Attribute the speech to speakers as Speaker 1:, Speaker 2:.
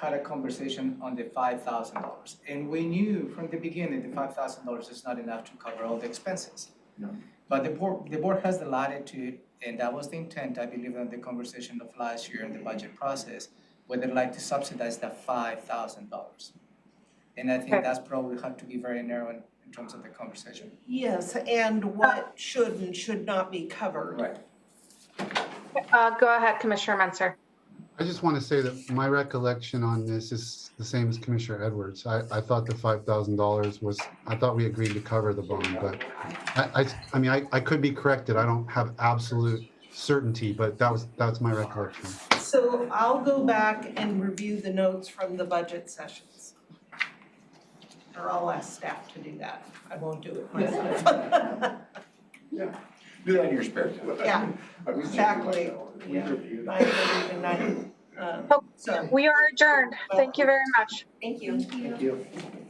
Speaker 1: had a conversation on the five thousand dollars. And we knew from the beginning, the five thousand dollars is not enough to cover all the expenses.
Speaker 2: No.
Speaker 1: But the board, the board has the latitude, and that was the intent, I believe, in the conversation of last year in the budget process, whether they'd like to subsidize that five thousand dollars. And I think
Speaker 3: Okay.
Speaker 1: that's probably had to be very narrow in, in terms of the conversation.
Speaker 4: Yes, and what should and should not be covered.
Speaker 1: Right.
Speaker 3: Uh, go ahead, Commissioner Menzer.
Speaker 5: I just want to say that my recollection on this is the same as Commissioner Edwards. I, I thought the five thousand dollars was, I thought we agreed to cover the bond, but I, I, I mean, I, I could be corrected. I don't have absolute certainty, but that was, that's my recollection.
Speaker 4: So I'll go back and review the notes from the budget sessions. Or I'll ask staff to do that. I won't do it myself.
Speaker 2: Do that in your spare time.
Speaker 4: Yeah,
Speaker 2: I was joking like
Speaker 4: exactly.
Speaker 2: that. We
Speaker 4: Yeah.
Speaker 2: reviewed
Speaker 4: I agree tonight. Um,
Speaker 3: Oh,
Speaker 4: So,
Speaker 3: We are adjourned. Thank you very much.
Speaker 4: thank you.
Speaker 1: Thank you.
Speaker 4: Thank